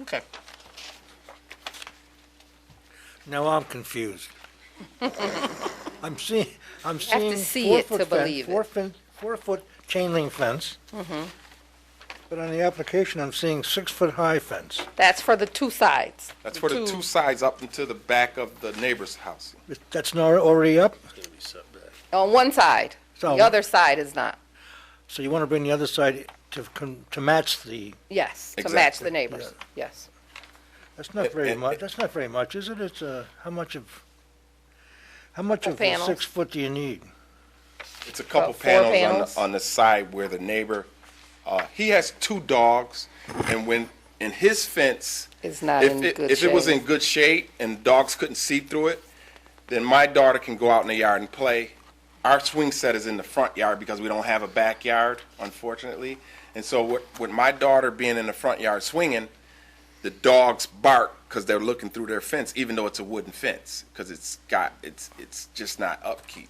Okay. Now I'm confused. I'm seeing, I'm have seeing. to see four it foot to fen- believe it. Mm-hmm. Four fen, four foot chain link fence. But on the application, I'm seeing six foot high fence. That's for the two sides. That's for the two sides up into the back of the neighbor's house. It- That's not already up, On one side. So- The other side is not. so you want to bring the other side to, con- to match the, Yes, to match Exactly. the neighbors. Yes. that's not very and- much, that's not very much, is it? It's, uh, how much of, how much The of the panels. six foot do you need? It's a couple About four panels, panels. On, the, on the side where the neighbor, uh, he has two dogs, and when in his fence, It's not if, in it, good if it was shape. in good shape and dogs couldn't see through it, then my daughter can go out in the yard and play. Our swing set is in the front yard because we don't have a backyard, unfortunately. And so with, with my daughter being in the front yard swinging, the dogs bark because they're looking through their fence, even though it's a wooden fence, because it's got it's it's just not upkeep.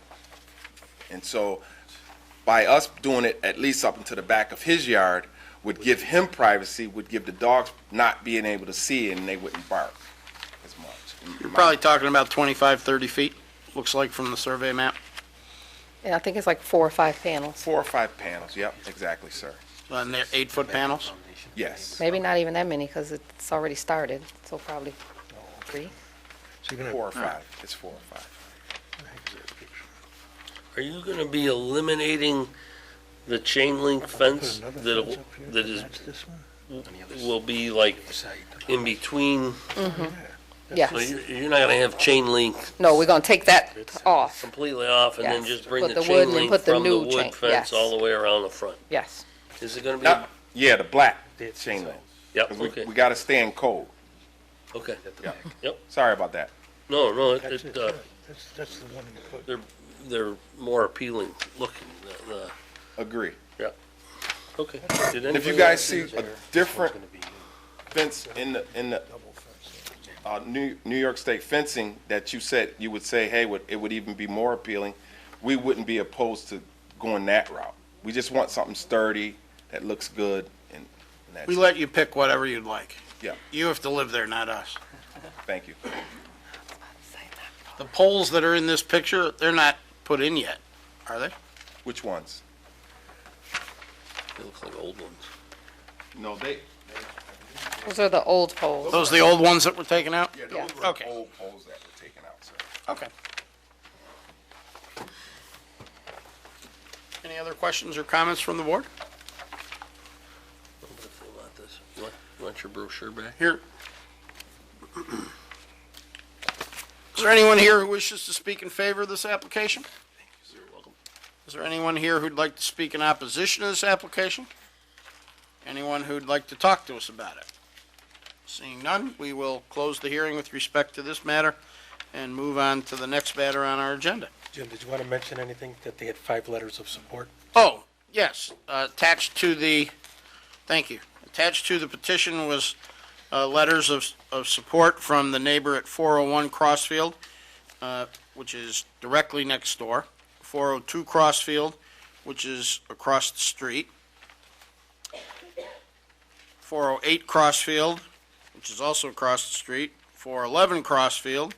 And so by us doing it at least up into the back of his yard would give him privacy, would give the dogs not being able to see and they wouldn't bark as much. You're probably talking about 25, 30 feet, looks like from the survey map. And I think it's like four or five panels. Four or five panels, yep, exactly, sir. And they're eight-foot panels. Yes. Maybe not even that many because it's already started, so probably three. So you're Four or gonna, five, it's four or five. Are you gonna be eliminating the chain link put fence another that, fence up here that to is, match this one? will be like in between? So Yes. you- you're not gonna have chain link No, we're going to take that off. completely off and then Yes. just bring Put the the wood chain and link put the from the new chain- wood yes. fence all the way around the front? Yes. Is it gonna be? Not- yeah, the black chain link. Yep, 'Cause okay, we, we gotta stay in code. okay. Yep. Yep. Sorry about that. No, no, it- That's it, it, uh, yeah. That's, that's the one you put. they're, they're more appealing looking, uh, uh, Agree. yeah. Okay. Did And if you anybody guys else- see a different fence in the, in the, uh, New, New York State fencing that you said, you would say, hey, would, it would even be more appealing, we wouldn't be opposed to going that route. We just want something sturdy, that looks good, and, and that's We it. let you pick whatever you'd like. Yeah, You have to live there, not us. thank you. The poles that are in this picture, they're not put in yet, are they? Which ones? They look like old ones. No, they. Those are the old poles. Those are the old ones that were taken out? Oh, Yeah, those were Okay. old poles that were taken out, sir. Okay. Any other questions or comments from the board? I'm gonna fill out this. You want- you want your brochure back? Here. Is there anyone here who wishes to speak in favor of this application? You're welcome. Is there anyone here who'd like to speak in opposition to this application? Anyone who'd like to talk to us about it? Seeing none, we will close the hearing with respect to this matter and move on to the next matter on our agenda. Jim, did you want to mention anything, that they had five letters of support? Oh, yes, uh, attached to the, thank you. Attached to the petition was uh, letters of, of support from the neighbor at 401 Crossfield, uh, which is directly next door, 402 Crossfield, which is across the street, 408 Crossfield, which is also across the street, 411 Crossfield,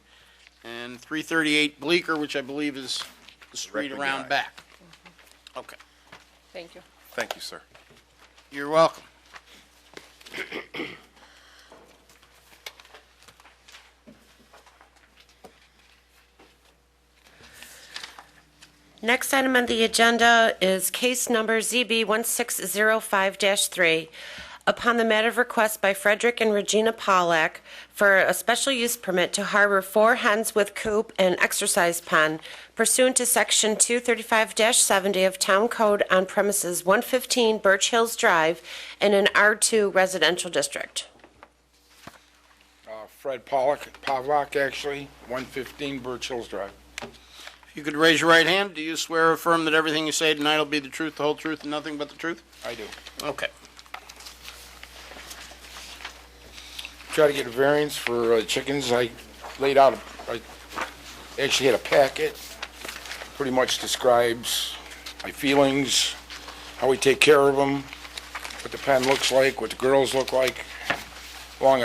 and 338 Bleecker, which I believe is the street Directly around behind. back. Okay. Thank you. Thank you, sir. You're welcome. Next item on the agenda is case number ZB 1605-3. Upon the matter of request by Frederick and Regina Pollack for a special use permit to harbor four hens with coop and exercise pen pursuant to Section 235-70 of Town Code on premises 115 Birch Hills Drive in an R2 residential district. Uh, Fred Pollock, Pavlock, actually, 115 Birch Hills Drive. If you could raise your right hand, do you swear or affirm that everything you say tonight will be the truth, the whole truth, and nothing but the truth? I do. Okay. Try to get a variance for uh, chickens. I laid out, a- I actually had a packet, pretty much describes my feelings, how we take care of them, what the pen looks like, what the girls look like, Long